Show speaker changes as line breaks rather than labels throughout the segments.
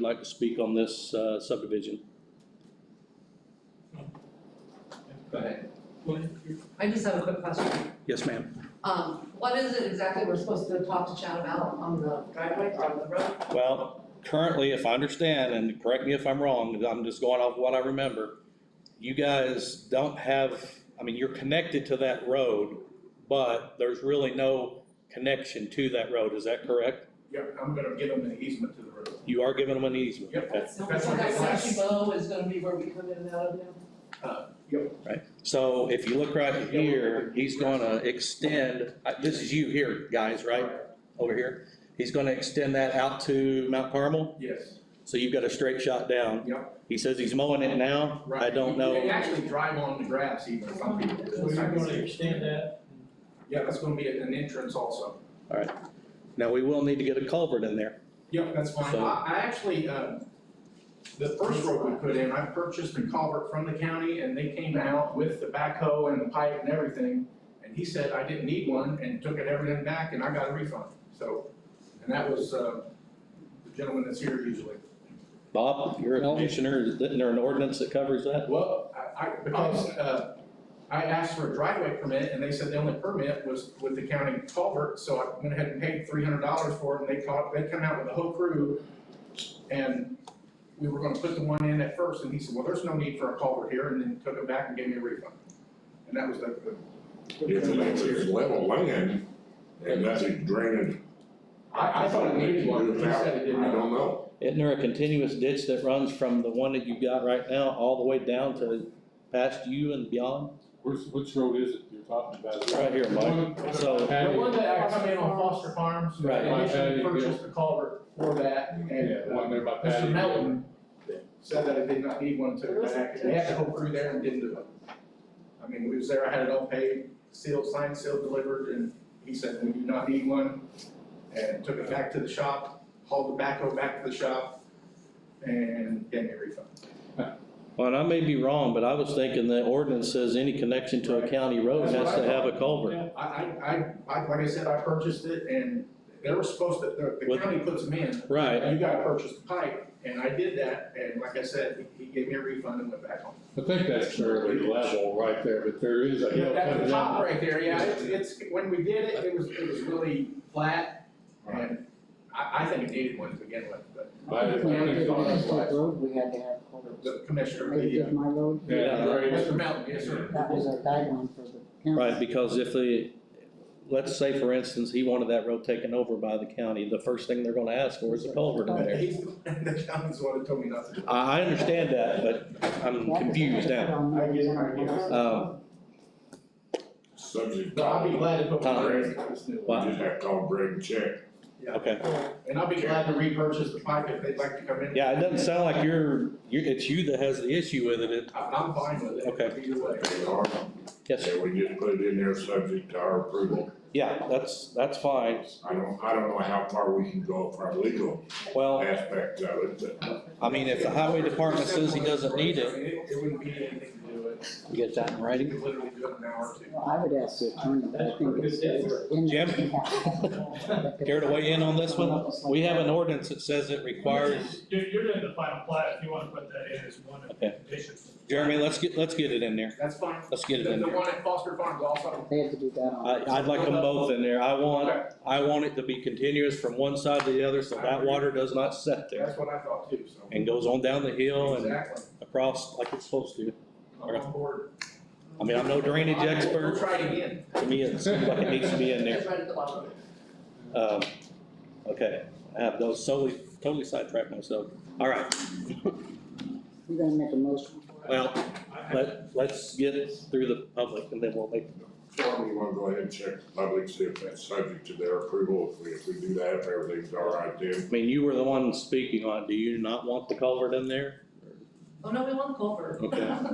like to speak on this uh, subdivision?
Go ahead.
I just have a quick question.
Yes, ma'am.
Um, what is it exactly we're supposed to talk to Chad about on the driveway or on the road?
Well, currently, if I understand, and correct me if I'm wrong, I'm just going off what I remember, you guys don't have, I mean, you're connected to that road, but there's really no connection to that road, is that correct?
Yeah, I'm gonna give them an easement to the road.
You are giving them an easement.
Yep.
okay?
So
That's what
that
it
section
says.
bow is gonna be where we come in and out of now?
So if you look right here, he's gonna extend, uh, this is you here, guys, right, over here? He's gonna extend that out to Mount Carmel,
Yes.
so you've got a straight shot down.
Yep.
He says he's mowing it now,
Right.
I don't
You can
know.
actually drive on the grass even, some people. do.
So you're gonna extend that?
Yeah, that's gonna be an entrance also.
Now, we will need to get a culvert in there.
Yep, that's fine.
So-
I, I actually, uh, the first road we put in, I purchased a culvert from the county and they came out with the backhoe and the pipe and everything. And he said I didn't need one and took it everything back and I got a refund, so, and that was, uh, the gentleman that's here usually.
Bob, you're a commissioner, isn't there an ordinance that covers that?
Well, I, I, because, uh, I asked for a driveway permit and they said the only permit was with the county culvert, so I went ahead and paid three hundred dollars for it and they caught, they come out with a whole crew. And we were gonna put the one in at first and he said, well, there's no need for a culvert here, and then took it back and gave me a refund. And that was the, the-
It's, it's- it's level land and that's a drainage.
I, I thought it needed one, but he said it didn't.
I don't know.
Isn't there a continuous ditch that runs from the one that you've got right now all the way down to past you and beyond?
Which, which road is it you're talking about?
Right here, Mike. So-
The one Oh, that I come in on Foster Farms,
Right.
I initially
Right.
purchased the culvert for that
Yeah,
and,
the
uh,
one there by Patty.
Mr. Melton said that it did not need one to, they had to go through there and didn't do it. I mean, we was there, I had it all paid, sealed, signed, sealed, delivered, and he said, we do not need one. And took it back to the shop, hauled the backhoe back to the shop, and gave me a refund.
Well, and I may be wrong, but I was thinking the ordinance says any connection to a county road has to have a culvert.
I, I, I, I- like I said, I purchased it and they were supposed to, the- the
With-
county puts them in.
Right,
You gotta purchase the pipe, and I did that, and like I said, he he gave me a refund and went back home.
I think that's fairly level right there, but there is a hill
At
coming
the top
down.
right there, yeah, it's, it's, when we did it, it was, it was really flat, and I, I think it needed one to begin with, but
I think it's on its way.
road, we had to have culverts.
the commissioner,
Maybe
the, uh,
just my road,
Yeah,
Mr.
right.
Melton, yes, sir.
that was a guideline for the county.
right, because if the, let's say for instance, he wanted that road taken over by the county, the first thing they're gonna ask for is a culvert in there.
He's, the county's the one that told me not to. do it.
I, I understand that, but I'm confused now.
I get it, I get it.
Um,
Subject.
But I'll be glad to put one in, this new
You
one.
just have to call Greg and check.
yeah,
okay.
and I'll be glad to repurchase the pipe if they'd like to come in.
Yeah, it doesn't sound like you're, you it's you that has the issue with it, it,
I, I'm fine with it.
Okay.
Either way.
They are,
yes, sir.
and we just put it in there, subject to our approval.
yeah, that's, that's fine.
I don't, I don't know how far we can go from our legal
Well,
aspect of it, but
I mean, if the highway department says he doesn't need it.
It wouldn't be anything to do it,
You get that in
you could literally do it in an hour or two.
Well, I would ask the attorney, but I think it's.
Jim? Care to weigh in on this one? We have an
order.
ordinance that says it requires,
You're, you're in the final plat, if you wanna put that in as one of the
Okay.
conditions.
Jeremy, let's get, let's get it in there,
That's fine.
let's get it
The,
in
the
there.
one at Foster Farms also,
They had to do that on.
I, I'd like them both in there, I want, I want it to be continuous from one side to the other, so that water does not set there.
that's what I thought too, so.
And goes on down the hill and
Exactly.
across like it's supposed to.
I'm on board.
I mean, I'm no drainage
We'll
expert,
try it again.
to me, it seems like it needs to be in there.
It's right at the bottom of it.
Um, okay, I have those solely, totally sidetracked myself. All right,
You're gonna make a motion.
well, let, let's get through the public and then we'll make,
Tom, you wanna go ahead and check the public, see if that's subject to their approval, if we, if we do that, if everything's all right then.
I mean, you were the one speaking on, it. do you not want the culvert in there?
Oh, no, we want Culver.
Okay.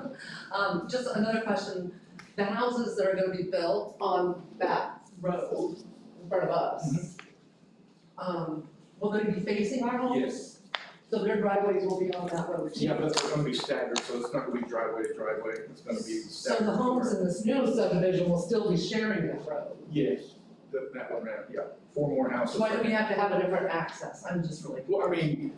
Um, just another question, the houses that are gonna be built on that road in front of us,
Mm-hmm.
um, will they be facing our homes?
Yes.
So their driveways will be on that road too?
Yeah, but it's gonna be staggered, so it's not gonna be driveway to driveway, it's gonna be
So
staggered.
the homes in this new subdivision will still be sharing that road?
Yes. That, that one, man, yeah, four more houses.
Why do we have to have a different access? I'm just really.
Well, I mean,